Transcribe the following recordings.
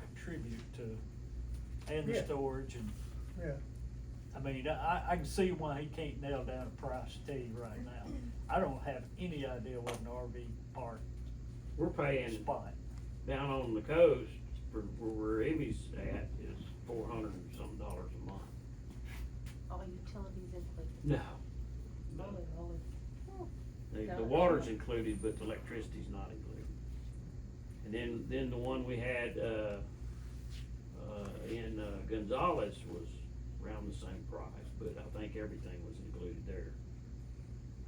contribute to, and the Yeah. storage and, yeah. I mean, I, I can see why he can't nail down a price to you right now. I don't have any idea what an RV park We're paying spot, down on the coast for where, where Amy's at is four hundred and some dollars a month. All utilities included. No. Holy moly. Oh, The, No, the that's water's not. included, but the electricity's not included. And then, then the one we had, uh, uh, in uh, Gonzales was around the same price, but I think everything was included there.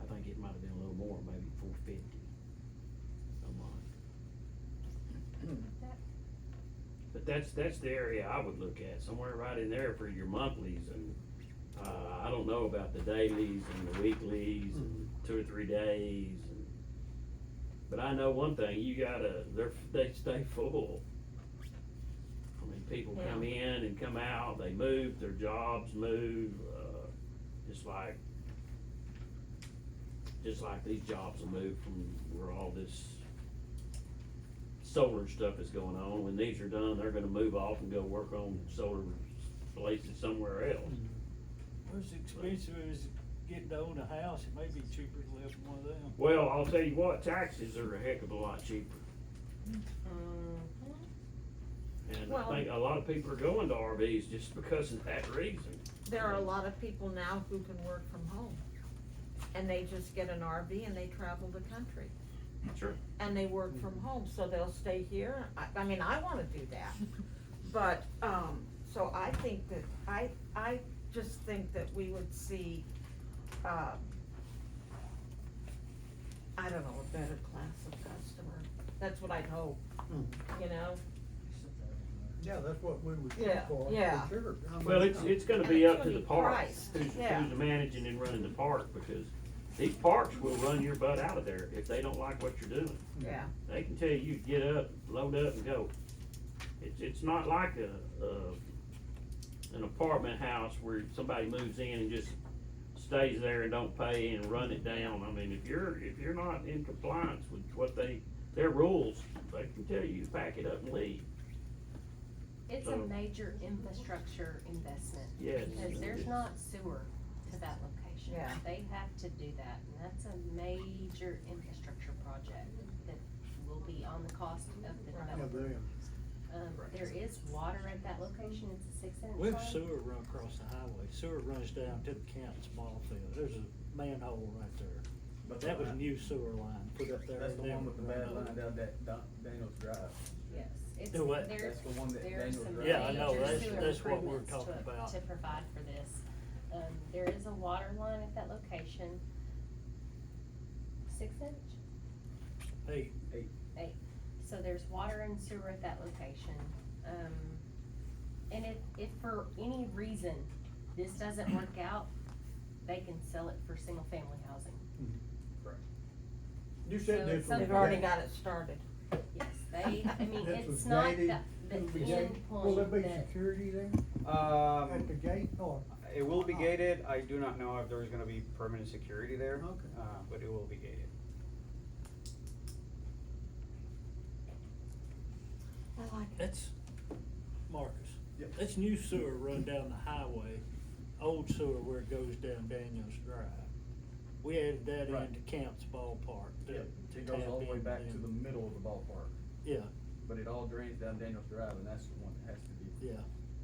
I think it might have been a little more, maybe four fifty a month. That- But that's, that's the area I would look at, somewhere right in there for your monthlies and, uh, I don't know about the dailies and the weeklies Mm-hmm. and Mm-hmm. two or three days and. But I know one thing, you gotta, they're, they stay full. I mean, people come in and come out, they move, their jobs move, uh, just like, just like these jobs will move from where all this solar stuff is going on. When these are done, they're gonna move off and go work on solar places somewhere else. as expensive as getting to own a house, it may be cheaper to live in one of them. Well, I'll tell you what, taxes are a heck of a lot cheaper. Mm. And I Well- think a lot of people are going to RVs just because of that reason. There are a lot of people now who can work from home. And they just get an RV and they travel the country. Sure. And they work from home, so they'll stay here. I, I mean, I wanna do that. But, um, so I think that, I, I just think that we would see, uh, I don't know, a better class of customer. That's what I'd hope, you know? Yeah, that's what we would shoot Yeah, for, yeah. for sure. I mean, Well, it's, it's gonna be And up to it's the gonna be parks, priced, who's, yeah. who's managing and running the park, because these parks will run your butt out of there if they don't like what you're doing. Mm-hmm. Yeah. They can tell you, get up, load up and go. It's, it's not like a, a, an apartment house where somebody moves in and just stays there and don't pay and run it down. I mean, if you're, if you're not in compliance with what they, their rules, they can tell you, pack it up and leave. It's a major infrastructure investment. Yes. Because there's not sewer to that location. Yeah. They have to do that, and that's a major infrastructure project that will be on the cost of the Right. Yeah, developer. damn. Um, there is water at that location, it's a six inch We line. have sewer run across the highway, sewer runs down to the Camps ball field, there's a manhole right there. But that was new sewer line put up there. That's the and one with the then bad run line up. down that Don- Daniels Drive. Yes, it's, Do what? there's, That's the one that there are Daniel some Drive. Yeah, I know, major that's- sewer that's what we're improvements talking about. to, to provide for this. Um, there is a water line at that location. Six inch? Hey, Eight. So there's water and sewer at that location. Um, and if, if for any reason this doesn't work out, they can sell it for single family housing. You said So this was it's They've something- already gang- got it started. Yes, they, I mean, this was it's not gated. the, the It'll be end gated. point Will there be that- security there at the Um, gate or? it will be gated. I do not know if there's gonna be permanent security there. Okay. Uh, but it will be gated. I like it. that's, Marcus, Yep. that's new sewer run down the highway, old sewer where it goes down Daniels Drive. We added that Right. into Camps Ballpark to, Yep, to it tap goes all the way in back to the then. middle of the ballpark, Yeah, but it all drains down Daniels Drive, and that's the one that has to be. yeah,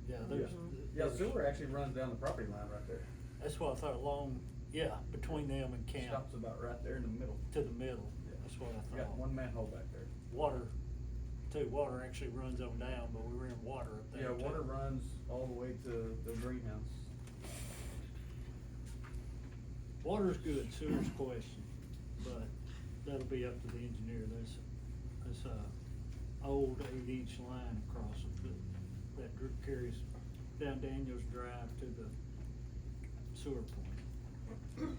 yeah, there's. Yeah, there's- sewer actually runs down the property line right there. That's why I thought long, yeah, between them and Camp, Stops about right there in the middle. to the middle, Yeah. that's what I We got thought. one manhole back there. Water, too, water actually runs on down, but we were in water up there Yeah, too. water runs all the way to the greenhouse. Water's good, sewer's question, but that'll be up to the engineer, there's, there's a old eight inch line across it that, that dr- carries down Daniels Drive to the sewer point.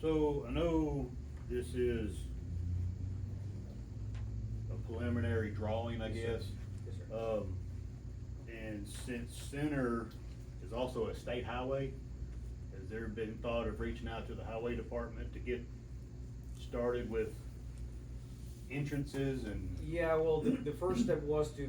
So I know this is a preliminary drawing, I Yes, guess. Yes, sir. Um, and since Center is also a state highway, has there been thought of reaching out to the highway department to get started with entrances and? Yeah, well, the, the first step was to